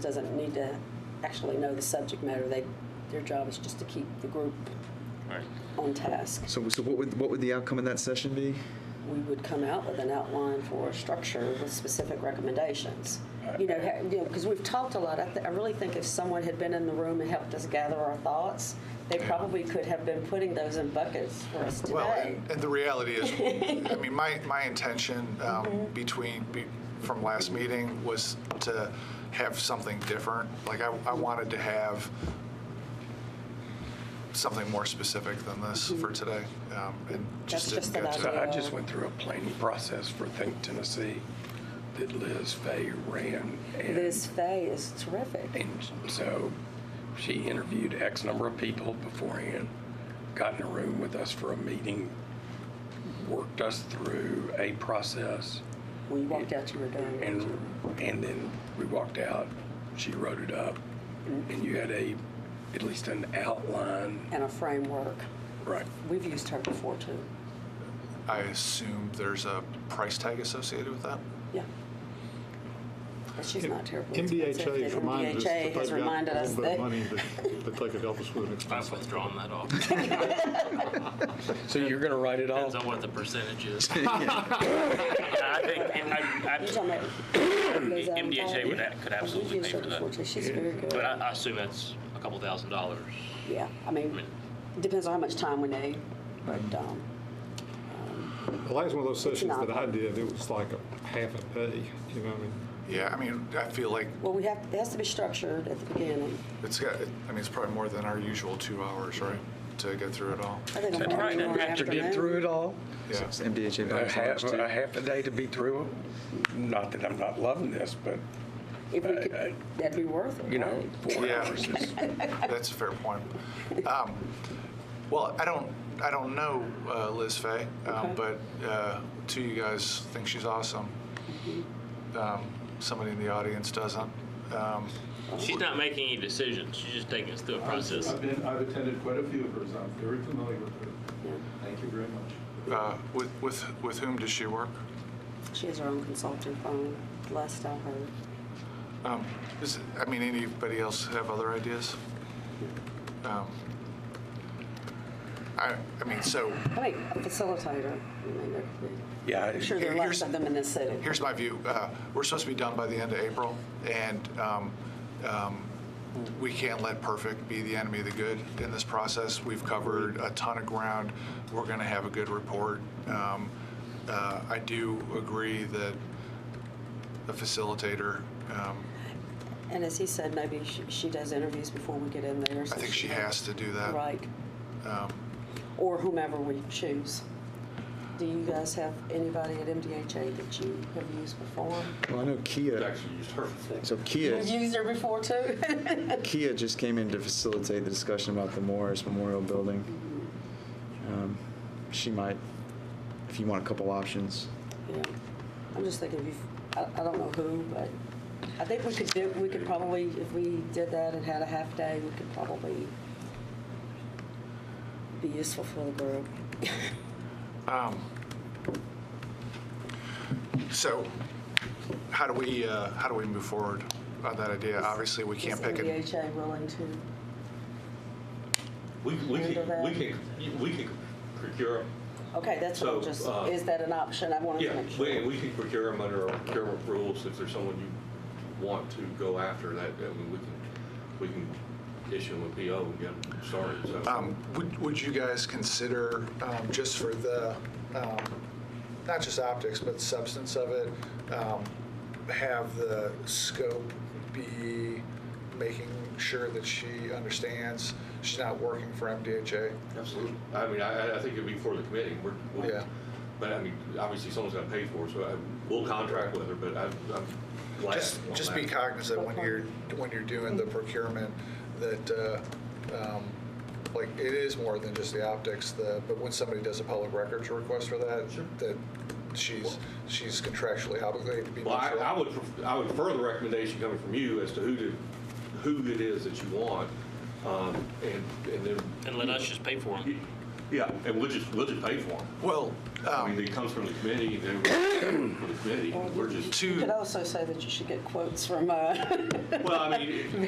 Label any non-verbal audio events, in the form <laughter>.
doesn't need to actually know the subject matter. They, their job is just to keep the group Right. on task. So, so what would, what would the outcome of that session be? We would come out with an outline for a structure with specific recommendations. You know, ha- you know, because we've talked a lot. I, th- I really think if someone had been in the room and helped us gather our thoughts, they probably could have been putting those in buckets for us today. Well, and, and the reality <laughs> is, I mean, my, my intention um, Mm-hmm. between, be, from last meeting was to have something different. Like, I, I wanted to have something more specific than this for today. Um, and just Mm-hmm. That's just didn't get an to idea. it. I just went through a planning process for Think Tennessee that Liz Fay ran. and- Liz Fay is terrific. And so she interviewed X number of people beforehand, got in a room with us for a meeting, worked us through a process, We walked out to your and, door. and then we walked out, she wrote it up, and you had a, at least an outline. And a framework. Right. We've used her before too. I assume there's a price tag associated with that. Yeah. But she's not terrible. MDHA reminded us that MDHA has they've got reminded a us little bit of money that. that that they could help us with an expense. I've withdrawn that off. <laughs> So you're gonna write it all? Depends on what the <laughs> percentage is. I think I, I, You're talking about Liz Allen MDHA would Fowler? a- could absolutely We've used pay her for that. before, too. She's very but good. I, I assume that's a couple thousand dollars. Yeah, I mean, depends on how much time we need, but, Mm-hmm. um, The last one of those sessions not- that I did, it was like a half a day, you know, what I mean, Yeah, I mean, I feel like well, we have, it has to be structured at the beginning. it's got, I mean, it's probably more than our usual two hours, right, to get through it all. I think I'm right, working and on after To get through afternoon. it all? Yeah. It's MDHA A bonus half, too. a half a day to be through it? Not that I'm not loving this, but, If we I- I- could, that'd be worth it, uh, you know, right? four Yeah. <laughs> hours is That's a fair point. Um, well, I don't, I don't know uh, Liz Fay, um, but uh, two of you guys think she's awesome. Um, somebody in the audience doesn't. Um, She's not making any decisions. She's just taking us through a process. I've been, I've attended quite a few of hers, I'm very familiar with her. Thank you very much. uh, with, with, with whom does she work? She has her own consulting firm, last I heard. Um, is, I mean, anybody else have other ideas? Um, I, I mean, so I mean, a facilitator, I mean, there could be. Yeah, I'm it- sure there are Here- lots here's- of them in this city. here's my view. Uh, we're supposed to be done by the end of April, and um, um, we can't let perfect be the enemy of the good in this process. We've covered a ton of ground. We're going to have a good report. Um, uh, I do agree that the facilitator. Um, And as he said, maybe she, she does interviews before we get in there. I think she has to do that. Um, Right. Or whomever we choose. Do you guys have anybody at MDHA that you have used before? Well, I know Kia, Actually used her for so Kia, You've used her before too? Kia just came in to facilitate the discussion about the Morris Memorial Building. Um, She might, if you want a couple options. Yeah. I'm just thinking, if you, I, I don't know who, but I think we could do, we could probably, if we did that and had a half day, we could probably be useful for the group. Um, so, how do we uh, how do we move forward on that idea? Obviously, we can't Is pick it. MDHA willing to? We, we Handle could, that. we could, we could procure, 'em. Okay, that's what I'm So, just, uh, is that an option? I wanted to yeah, make sure. we, we could procure them under our procurement rules. If there's someone you want to go after, that, I mean, we can, we can issue them a PO and get them started, so. Um, Would would you guys consider, um, just for the, um, not just optics, but substance of it, um, have the scope be making sure that she understands she's not working for MDHA? Absolutely. I mean, I, I- I think it'd be for the committee. We're, we'll- Yeah. But I mean, obviously someone's got to pay for it, so I, we'll contract with her, but I, I'm glad. Just on just that. be cognizant when you're, when you're doing the procurement that, uh, um, like, it is more than just the optics, the, but when somebody does a public records request for that, that she's, she's contractually obligated to be Well, I, neutral. I would, pref- I would further recommendation coming from you as to who to, who it is that you want, um, and, and then. And let us just pay for them. You- Yeah, and we'll just, we'll just pay for them. Well, I mean, um, it comes from the committee, they were from the committee, we're just, You to. could also say that you should get quotes from, uh, well, I mean, it-